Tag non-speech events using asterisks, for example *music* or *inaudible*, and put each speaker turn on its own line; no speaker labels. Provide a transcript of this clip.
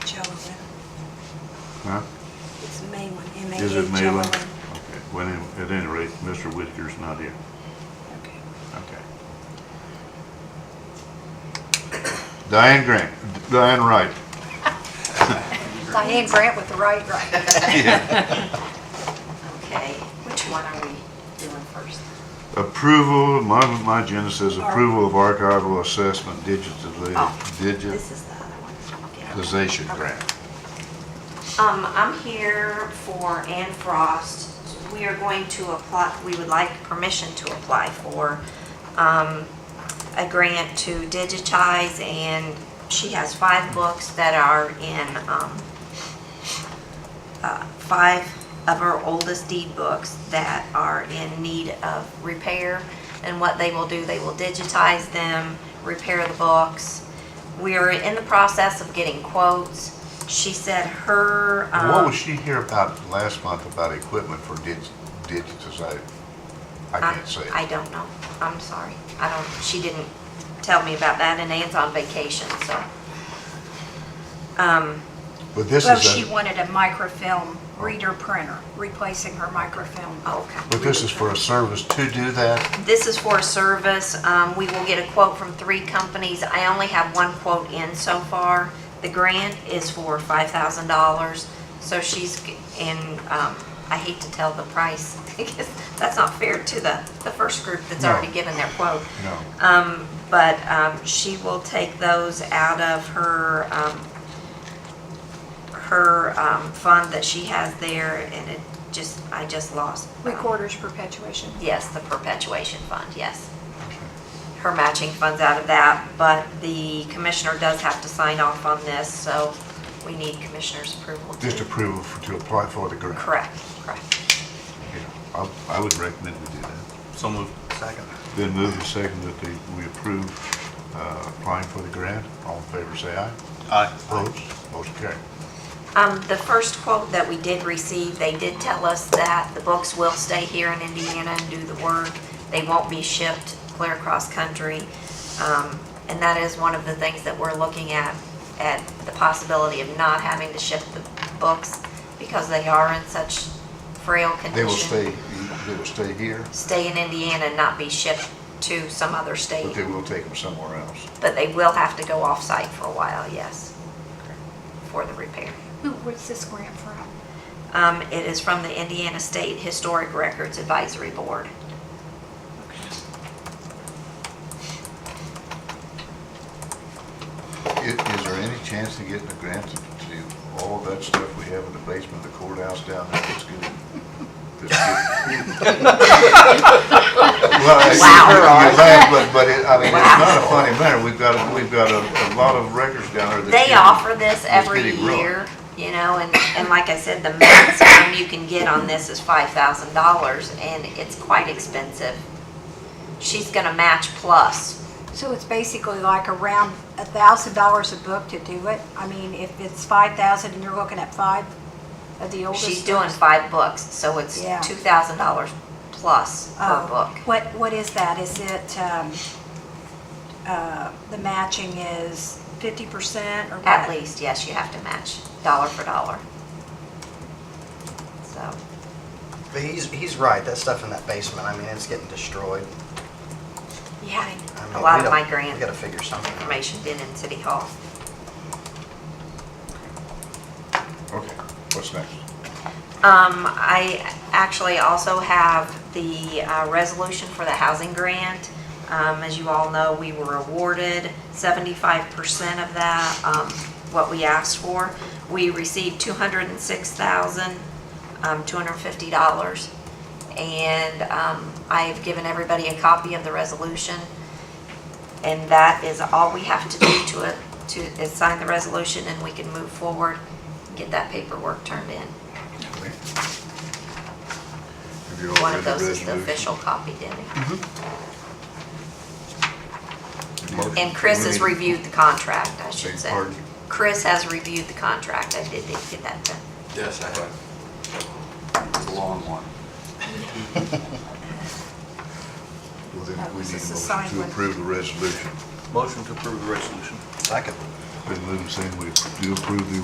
Magellan.
Huh?
It's Malin,
Is it
M-A-L-L-A-N.
Malin? Okay, well, any- at any rate, Mr. Whitaker's not here.
Okay.
Okay. Diane Grant, Diane
*laughs*
Wright.
Diane Grant with the right, right.
Yeah.
*laughs* Okay, which one are we doing first?
Approval, my, my agenda says
Ar-
approval of archival assessment digitally,
Oh,
This is the other one.
Okay.
digitization grant.
Um, I'm here for Ann Frost. We are going to apply, we would like permission to apply for, um, a grant to digitize and she has five books that are in, um, uh, five of her oldest deed books that are in need of repair. And what they will do, they will digitize them, repair the books. We are in the process of getting quotes. She said her,
What
um,
was she here about last month about equipment for dig- digitization? I
I-
can't say.
um, I don't know. I'm sorry. I don't, she didn't tell me about that and Ann's on vacation, so. Um,
But this
Well,
is,
she
a-
wanted a microfilm reader printer, replacing her microfilm.
Oh, okay.
but this is for a service to do that?
This is for a service. Um, We will get a quote from three companies. I only have one quote in so far. The grant is for $5,000, so she's, g- and um, I hate to tell the price *laughs* because that's not fair to the, the first group that's
No.
already given their quote.
No.
Um, But um, she will take those out of her, um, her um, fund that she has there and it just, I just lost. um,
Recorder's perpetuation.
Yes, the perpetuation fund, yes. Her matching funds out of that, but the commissioner does have to sign off on this, so we need commissioner's approval. to-
Just approval for- to apply for the grant?
Correct, correct.
Yeah, I I would recommend we do that.
So moved. Second.
Then move the second that they- we approve uh, applying for the grant. All in favor, say aye.
Aye.
Opposed? Motion carried.
Um, the first quote that we did receive, they did tell us that the books will stay here in Indiana and do the work. They won't be shipped clear across country. Um, and that is one of the things that we're looking at, at the possibility of not having to ship the books because they are in such frail condition.
They will stay, they will stay here,
Stay in Indiana and not be shipped to some other state.
but they will take them somewhere else.
But they will have to go off-site for a while, yes, for the repair.
Who, what's this grant from?
Um, it is from the Indiana State Historic Records Advisory Board.
I- Is there any chance of getting a grant to do all of that stuff we have in the basement of the courthouse down there that's good? that's good?
*laughs*
Well, I-
Wow.
you laugh, But, but it- I mean, it's
Wow.
not a funny matter. We've got, a- we've got a a lot of records down there that.
They
you-
offer this every
getting ruined.
year, you know, and, and like I said, the maximum you can get on this is five thousand dollars, and it's quite expensive. She's gonna match plus.
So it's basically like around a thousand dollars a book to do it? I mean, if it's five thousand and you're looking at five of the oldest.
She's doing five books, so it's
Yeah.
two thousand dollars plus per
Oh,
book.
What, what is that? Is it, um, uh, the matching is fifty percent or what?
At least, yes, you have to match dollar for dollar. So,
But he's, he's right, that stuff in that basement, I mean, it's getting destroyed.
yeah,
I mean,
a
we
lot of
don't-
my grant.
We gotta figure something out.
information been in City Hall.
Okay, what's next?
Um, I actually also have the uh, resolution for the housing grant. Um, As you all know, we were awarded 75% of that, um, what we asked for. We received um, $206,250. And um, I have given everybody a copy of the resolution. And that is all we have to do to it, to, is sign the resolution and we can move forward, and get that paperwork turned in.
Have you all
One
read
of
the
those is the
resolution?
official copy, Debbie.
Motion.
And Chris has
We need-
reviewed the contract, I
Beg
should say.
pardon?
Chris has reviewed the contract, I did did get that done.
Yes, I have. It's a long one.
Well, then we need
This
a motion
is the signed
to
one.
approve the resolution.
Motion to approve the resolution.
Second.
Been moved saying we do approve the